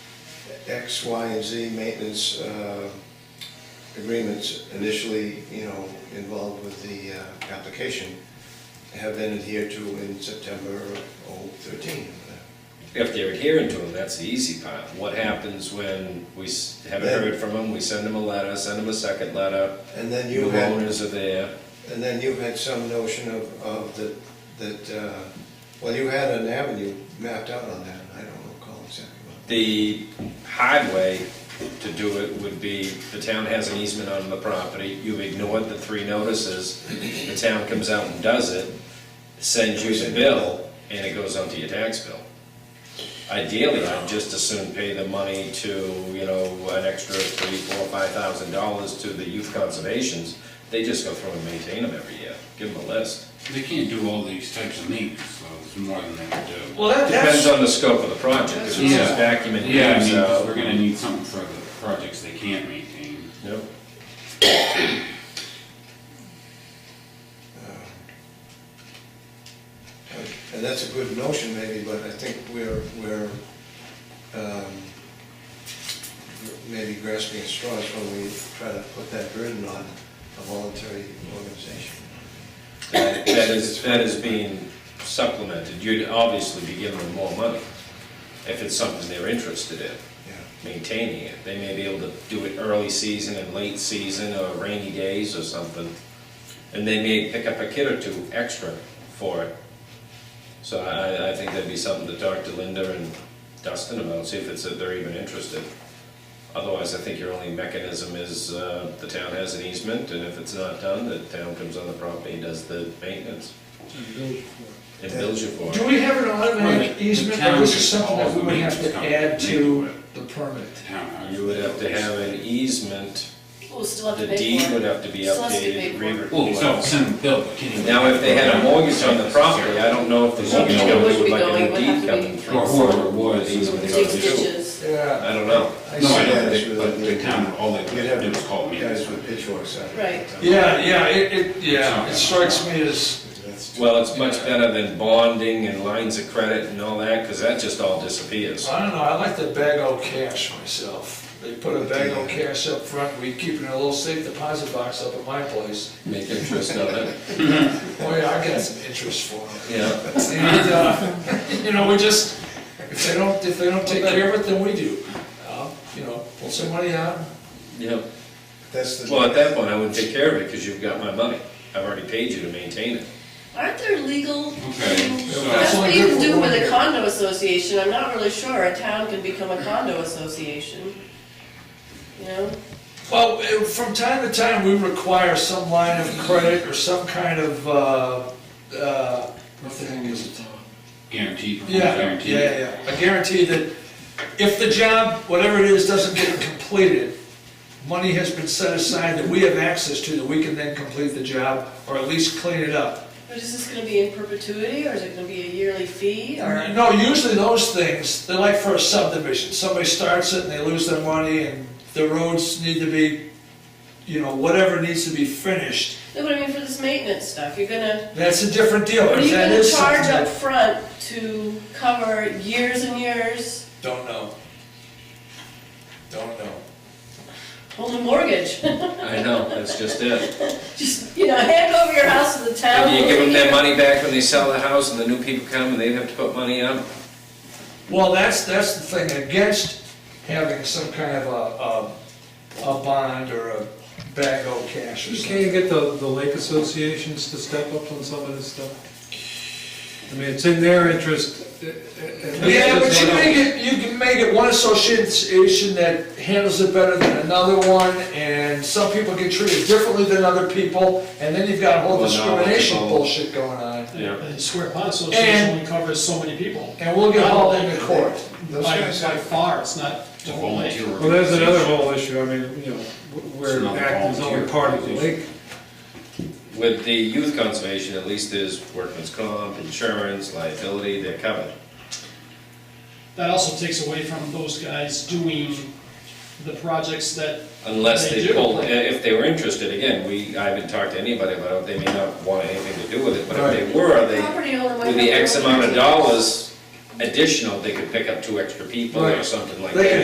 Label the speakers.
Speaker 1: X, Y, and Z maintenance uh, agreements initially, you know, involved with the uh, application have been adhered to in September of 13.
Speaker 2: If they're adhering to them, that's the easy part. What happens when we s- haven't
Speaker 1: Then-
Speaker 2: heard from them, we send them a letter, send them a second letter,
Speaker 1: And then you
Speaker 2: new
Speaker 1: had...
Speaker 2: owners are there.
Speaker 1: And then you had some notion of, of the, that, uh, well, you had an avenue mapped out on that, and I don't recall exactly what.
Speaker 2: The hard way to do it would be, the town has an easement on the property, you've ignored the three notices, the town comes out and does it, sends you the bill, and it goes onto your tax bill. Ideally, I'd just as soon pay the money to, you know, an extra three, four, five thousand dollars to the youth conservations. They just go through and maintain them every year, give them a list.
Speaker 3: They can't do all these types of needs, so it's more than they can do.
Speaker 4: Well, that,
Speaker 2: Depends
Speaker 4: that's,
Speaker 2: on the scope of the project, if it's just vacuum and
Speaker 3: Yeah, I mean,
Speaker 2: cleans
Speaker 3: 'cause
Speaker 2: out.
Speaker 3: we're gonna need something for the projects they can't maintain.
Speaker 2: Yep.
Speaker 1: And that's a good notion maybe, but I think we're, we're, um, maybe grasping at straws when we try to put that burden on a voluntary organization.
Speaker 2: That that is, that is being supplemented, you'd obviously be giving them more money if it's something they're interested in,
Speaker 1: Yeah,
Speaker 2: maintaining it. They may be able to do it early season and late season or rainy days or something. And they may pick up a kid or two extra for it. So I, I think that'd be something to talk to Linda and Dustin about, see if it's, if they're even interested. Otherwise, I think your only mechanism is, uh, the town has an easement, and if it's not done, the town comes on the property and does the maintenance. And bills you for it.
Speaker 4: do we have an
Speaker 3: Well,
Speaker 4: automatic
Speaker 3: the-
Speaker 4: easement,
Speaker 3: the town
Speaker 4: or this
Speaker 3: should
Speaker 4: is something that we would have
Speaker 3: always
Speaker 4: to
Speaker 3: come
Speaker 4: add
Speaker 3: into
Speaker 4: to
Speaker 3: it.
Speaker 4: the permit?
Speaker 3: The townhouse.
Speaker 2: You would have to have an easement,
Speaker 5: We'll still have
Speaker 2: the
Speaker 5: to pay
Speaker 2: deed
Speaker 5: for
Speaker 2: would
Speaker 5: it.
Speaker 2: have to be
Speaker 5: Still has to be
Speaker 2: updated.
Speaker 5: paid for.
Speaker 2: re-
Speaker 3: Well, so send them bill, but can you?
Speaker 2: Now, if they had a mortgage on the property, I don't know if the mortgage
Speaker 5: It
Speaker 2: company
Speaker 5: would
Speaker 2: would
Speaker 5: be
Speaker 2: like
Speaker 5: going,
Speaker 2: a
Speaker 5: would
Speaker 2: new deed
Speaker 5: have to
Speaker 2: coming
Speaker 5: be-
Speaker 2: through.
Speaker 3: Or whoever it was,
Speaker 2: These are the
Speaker 3: it
Speaker 5: Dig
Speaker 2: guys who-
Speaker 5: ditches.
Speaker 1: Yeah.
Speaker 2: I don't know.
Speaker 1: I
Speaker 3: No,
Speaker 1: see
Speaker 3: I don't
Speaker 1: that as
Speaker 3: think, but
Speaker 1: really-
Speaker 3: the town, all they
Speaker 1: You'd
Speaker 3: could
Speaker 1: have
Speaker 3: do is call me.
Speaker 1: Guys with pitchforks out.
Speaker 5: Right.
Speaker 4: Yeah, yeah, it, it, yeah, it strikes me as,
Speaker 1: That's-
Speaker 2: Well, it's much better than bonding and lines of credit and all that, because that just all disappears.
Speaker 4: I don't know, I like the bag o' cash myself. They put a bag o' cash up front, we keep it in a little safe deposit box up at my place.
Speaker 2: Make interest on it.
Speaker 4: Oh yeah, I got some interest for them.
Speaker 2: Yeah,
Speaker 4: And, uh, you know, we just, if they don't, if they don't take care of it, then we do. Uh, You know, pull some money out,
Speaker 2: yeah.
Speaker 1: That's the.
Speaker 2: Well, at that point, I wouldn't take care of it, because you've got my money. I've already paid you to maintain it.
Speaker 5: Aren't there legal?
Speaker 3: Okay, so-
Speaker 5: That's what you
Speaker 4: That's only good
Speaker 5: can
Speaker 4: for
Speaker 5: do
Speaker 4: one
Speaker 5: with
Speaker 4: year.
Speaker 5: a condo association, I'm not really sure, a town can become a condo association. You know,
Speaker 4: Well, eh, from time to time, we require some line of credit or some kind of, uh, uh, what the heck is it?
Speaker 3: Guarantee, performance
Speaker 4: Yeah, yeah,
Speaker 3: guarantee.
Speaker 4: yeah, yeah. a guarantee that if the job, whatever it is, doesn't get completed, money has been set aside that we have access to, that we can then complete the job, or at least clean it up.
Speaker 5: but is this gonna be in perpetuity, or is it gonna be a yearly fee, or?
Speaker 4: No, usually those things, they're like for a subdivision, somebody starts it and they lose their money, and the roads need to be, you know, whatever needs to be finished,
Speaker 5: No, but I mean, for this maintenance stuff, you're gonna,
Speaker 4: That's a different deal.
Speaker 5: what are you
Speaker 4: That
Speaker 5: gonna
Speaker 4: is
Speaker 5: charge
Speaker 4: something
Speaker 5: up
Speaker 4: that-
Speaker 5: front to cover years and years,
Speaker 4: Don't know. Don't know.
Speaker 5: hold a mortgage?
Speaker 2: I know, that's just it.
Speaker 5: Just, you know, hand over your house to the town.
Speaker 2: And you give them their money back when they sell the house, and the new people come, and they have to put money up.
Speaker 4: Well, that's, that's the thing against having some kind of a, a, a bond or a bag of cash or
Speaker 6: You
Speaker 4: something.
Speaker 6: can't get the, the lake associations to step up on some of this stuff. I mean, it's in their interest. uh, uh, at least
Speaker 4: Yeah, but
Speaker 6: it's
Speaker 4: you
Speaker 6: not-
Speaker 4: make it, you can make it one association that handles it better than another one, and some people get treated differently than other people, and then you've got a whole
Speaker 2: Well, now it's
Speaker 4: discrimination
Speaker 2: all-
Speaker 4: bullshit going on,
Speaker 2: Yeah.
Speaker 7: And square pot association only covers so many people.
Speaker 4: and we'll get hauled into court.
Speaker 1: Those
Speaker 7: By,
Speaker 1: guys
Speaker 7: by
Speaker 1: have-
Speaker 7: far, it's not
Speaker 3: It's
Speaker 7: the
Speaker 3: a
Speaker 7: whole
Speaker 3: volunteer
Speaker 7: nation.
Speaker 6: Well, there's another
Speaker 3: organization.
Speaker 6: whole issue, I mean, you know, wh-
Speaker 3: It's
Speaker 6: where
Speaker 3: not a
Speaker 6: act is only
Speaker 3: volunteer
Speaker 6: part of the
Speaker 3: organization.
Speaker 6: lake.
Speaker 2: With the youth conservation, at least there's workman's comp, insurance, liability, they're covered.
Speaker 7: That also takes away from those guys doing the projects that,
Speaker 2: Unless
Speaker 7: They
Speaker 2: they
Speaker 7: do.
Speaker 2: pulled, i- if they were interested, again, we, I haven't talked to anybody about it, they may not want anything to do with it, but if they were, they,
Speaker 5: Property owner might
Speaker 2: with the
Speaker 5: have
Speaker 2: X
Speaker 5: their own
Speaker 2: amount of
Speaker 5: taxes.
Speaker 2: dollars additional, they could pick up two extra people or
Speaker 4: Right.
Speaker 2: something like
Speaker 4: They
Speaker 2: that.
Speaker 4: could